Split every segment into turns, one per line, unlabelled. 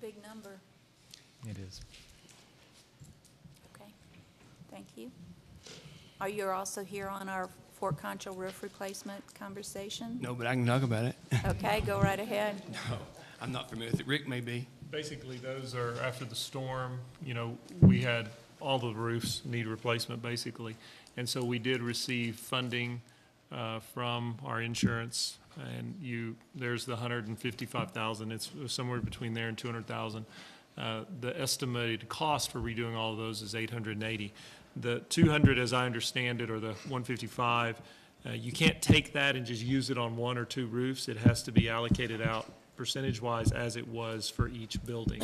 big number.
It is.
Okay, thank you. Are you also here on our Fort Concho roof replacement conversation?
No, but I can talk about it.
Okay, go right ahead.
Oh, I'm not familiar with it. Rick may be.
Basically, those are, after the storm, you know, we had, all the roofs need replacement, basically. And so we did receive funding uh, from our insurance, and you, there's the hundred and fifty-five thousand, it's somewhere between there and two hundred thousand. Uh, The estimated cost for redoing all of those is eight hundred and eighty. The two hundred, as I understand it, or the one fifty-five, uh, you can't take that and just use it on one or two roofs. It has to be allocated out percentage-wise as it was for each building.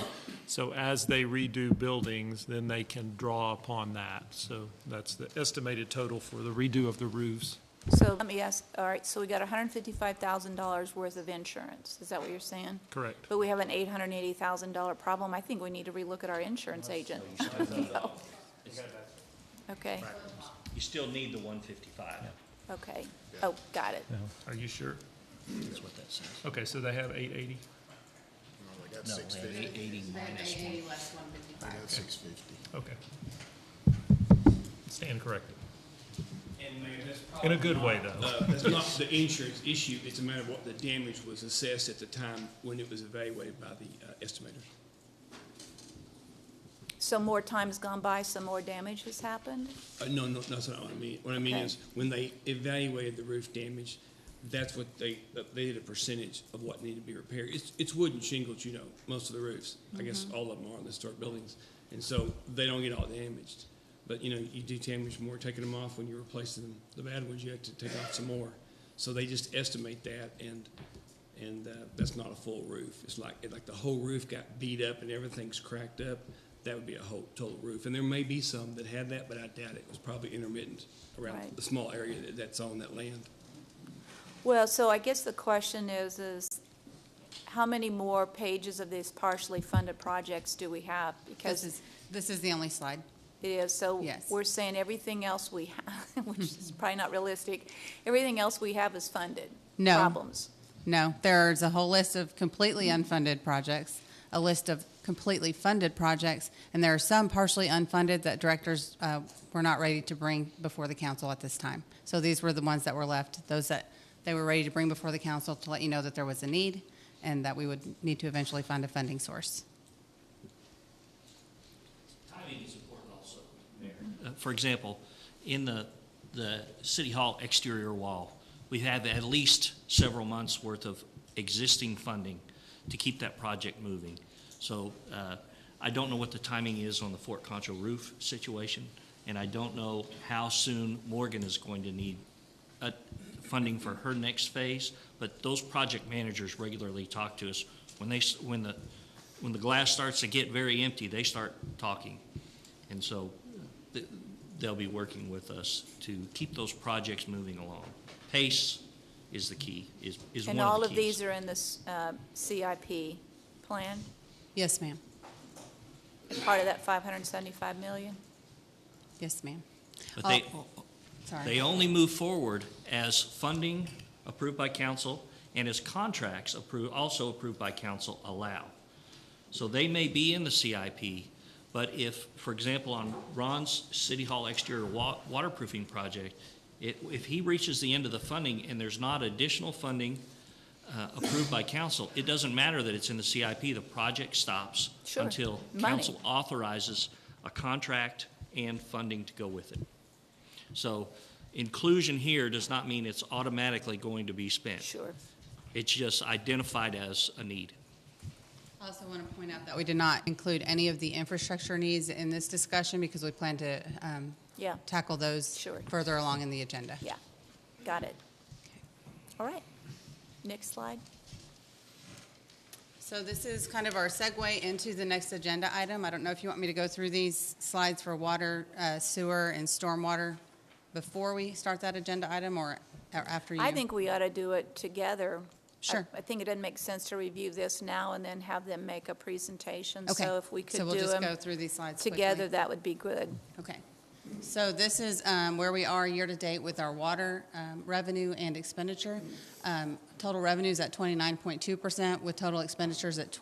So as they redo buildings, then they can draw upon that. So that's the estimated total for the redo of the roofs.
So let me ask, all right, so we got $155,000 worth of insurance, is that what you're saying?
Correct.
But we have an $880,000 problem, I think we need to relook at our insurance agent. Okay,
You still need the one fifty-five,
okay, oh, got it.
Are you sure?
That's what that says.
Okay, so they have eight eighty?
No, they have eight eighty minus one.
Okay. Stand corrected.
And Mayor, that's
In a good way, though.
Uh, that's not the insurance issue. It's a matter of what the damage was assessed at the time when it was evaluated by the uh, estimators.
So more time's gone by, some more damage has happened?
Uh, no, no, that's not what I mean. What I mean
Okay.
is when they evaluated the roof damage, that's what they uh, they did a percentage of what needed to be repaired. It's it's wood and shingles, you know, most of the roofs. I guess all of them are in the historic buildings, and so they don't get all damaged. But you know, you do damage more taking them off when you're replacing them. The bad ones you have to take off some more. So they just estimate that, and and uh, that's not a full roof. It's like like the whole roof got beat up and everything's cracked up. That would be a whole total roof. And there may be some that had that, but I doubt it. It was probably intermittent around
Right.
the small area that, that's on that land.
Well, so I guess the question is, is how many more pages of these partially funded projects do we have?
This
Because
is, this is the only slide.
it is, so
Yes.
we're saying everything else we have, which is probably not realistic, everything else we have is funded.
No.
Problems.
No, there's a whole list of completely unfunded projects, a list of completely funded projects, and there are some partially unfunded that directors uh, were not ready to bring before the council at this time. So these were the ones that were left, those that they were ready to bring before the council to let you know that there was a need and that we would need to eventually find a funding source.
Timing is important also, Mayor. Uh, For example, in the, the city hall exterior wall, we have at least several months' worth of existing funding to keep that project moving. So uh, I don't know what the timing is on the Fort Concho roof situation, and I don't know how soon Morgan is going to need uh, funding for her next phase, but those project managers regularly talk to us. When they, s- when the, when the glass starts to get very empty, they start talking. And so uh, th- they'll be working with us to keep those projects moving along. Pace is the key, is, is one
And all
of
of
the keys.
these are in this uh, CIP plan,
Yes, ma'am.
part of that 575 million?
Yes, ma'am.
But they,
Sorry.
they only move forward as funding approved by council and as contracts approved, also approved by council allow. So they may be in the CIP, but if, for example, on Ron's City Hall exterior wa- waterproofing project, it, if he reaches the end of the funding and there's not additional funding uh, approved by council, it doesn't matter that it's in the CIP, the project stops
Sure.
until
Money.
council authorizes a contract and funding to go with it. So inclusion here does not mean it's automatically going to be spent.
Sure.
It's just identified as a need.
I also want to point out that we did not include any of the infrastructure needs in this discussion because we plan to um,
Yeah,
tackle those
Sure.
further along in the agenda.
yeah, got it. All right, next slide.
So this is kind of our segue into the next agenda item. I don't know if you want me to go through these slides for water, uh, sewer, and stormwater before we start that agenda item or or after you?
I think we ought to do it together. I-
Sure.
I think it doesn't make sense to review this now and then have them make a presentation.
Okay.
So if we could
So
do
we'll just go
them
through these slides quickly.
together, that would be good.
Okay. So this is um, where we are year-to-date with our water um, revenue and expenditure. Um, Total revenues at 29.2%, with total expenditures at